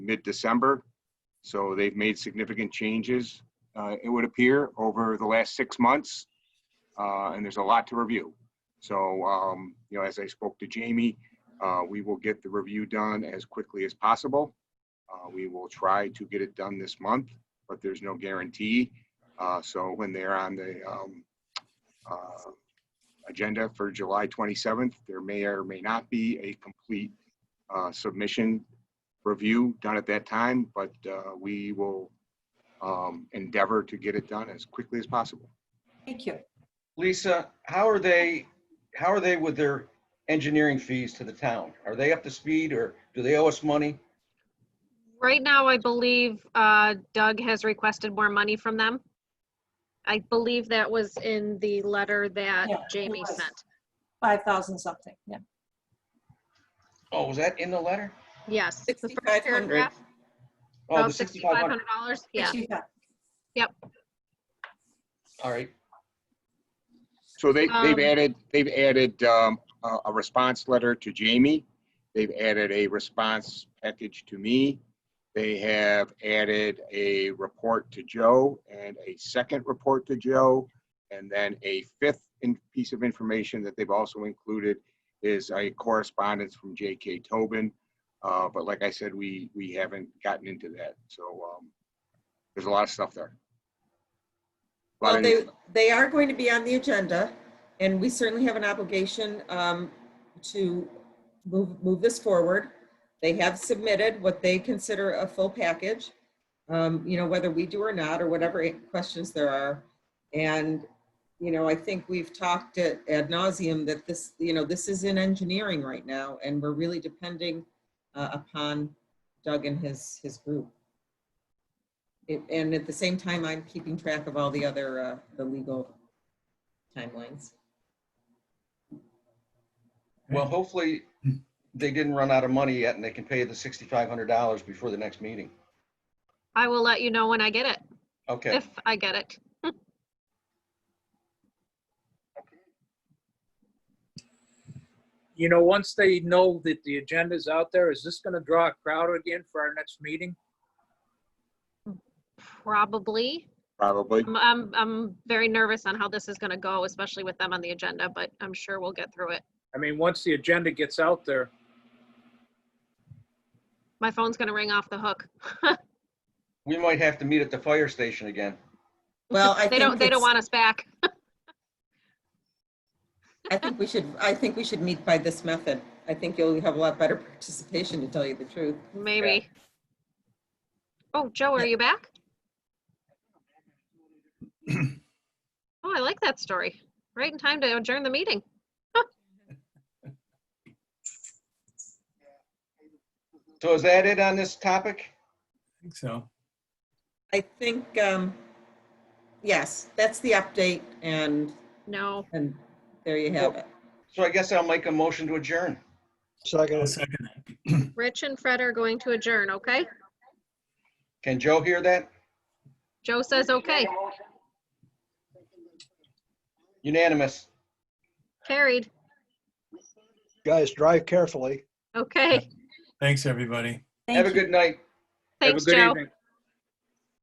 mid-December. So they've made significant changes, uh, it would appear, over the last six months. Uh, and there's a lot to review. So, um, you know, as I spoke to Jamie, uh, we will get the review done as quickly as possible. Uh, we will try to get it done this month, but there's no guarantee. Uh, so when they're on the, um, uh, agenda for July 27th, there may or may not be a complete, uh, submission review done at that time, but uh, we will um, endeavor to get it done as quickly as possible. Thank you. Lisa, how are they, how are they with their engineering fees to the town? Are they up to speed or do they owe us money? Right now, I believe uh, Doug has requested more money from them. I believe that was in the letter that Yeah, it Jamie was. sent. 5,000 something, yeah. Oh, was that in the letter? Yes. the first 6,500. paragraph, Oh, about the sixty-five hundred, $6,500, yeah. She got- all right. So they, they've Um, added, they've added um, a a response letter to Jamie. They've added a response package to me. They have added a report to Joe and a second report to Joe. And then a fifth in- piece of information that they've also included is a correspondence from J.K. Tobin. Uh, But like I said, we, we haven't gotten into that. So um, there's a lot of stuff there. A lot Well, of they, news. they are going to be on the agenda, and we certainly have an obligation um, to move, move this forward. They have submitted what they consider a full package, um, you know, whether we do or not, or whatever questions there are. And, you know, I think we've talked at ad nauseum that this, you know, this is in engineering right now, and we're really depending uh, upon Doug and his, his group. It- And at the same time, I'm keeping track of all the other, uh, the legal timelines. Well, hopefully they didn't run out of money yet and they can pay the sixty-five hundred dollars before the next meeting. I will let you know when I get it, Okay, if I get it. you know, once they know that the agenda's out there, is this gonna draw a crowd again for our next meeting? Probably. Probably. I'm- I'm, I'm very nervous on how this is going to go, especially with them on the agenda, but I'm sure we'll get through it. I mean, once the agenda gets out there, My phone's going to ring off the hook. we might have to meet at the fire station again. Well, I They think. don't, they don't it's- want us back. I think we should, I think we should meet by this method. I think you'll have a lot better participation, to tell you the truth. Maybe. Oh, Joe, are you back? Oh, I like that story. Right in time to adjourn the meeting. So is that it on this topic? think so. I think, um, yes, that's the update, and, No, and there you have it. So I guess I'll make a motion to adjourn. I'll Second, second that. Rich and Fred are going to adjourn, okay? Can Joe hear that? Joe says, okay, Unanimous. carried, guys, drive carefully. okay. Thanks, everybody. Thank Have a you. good night. have a Thanks, good Joe. evening.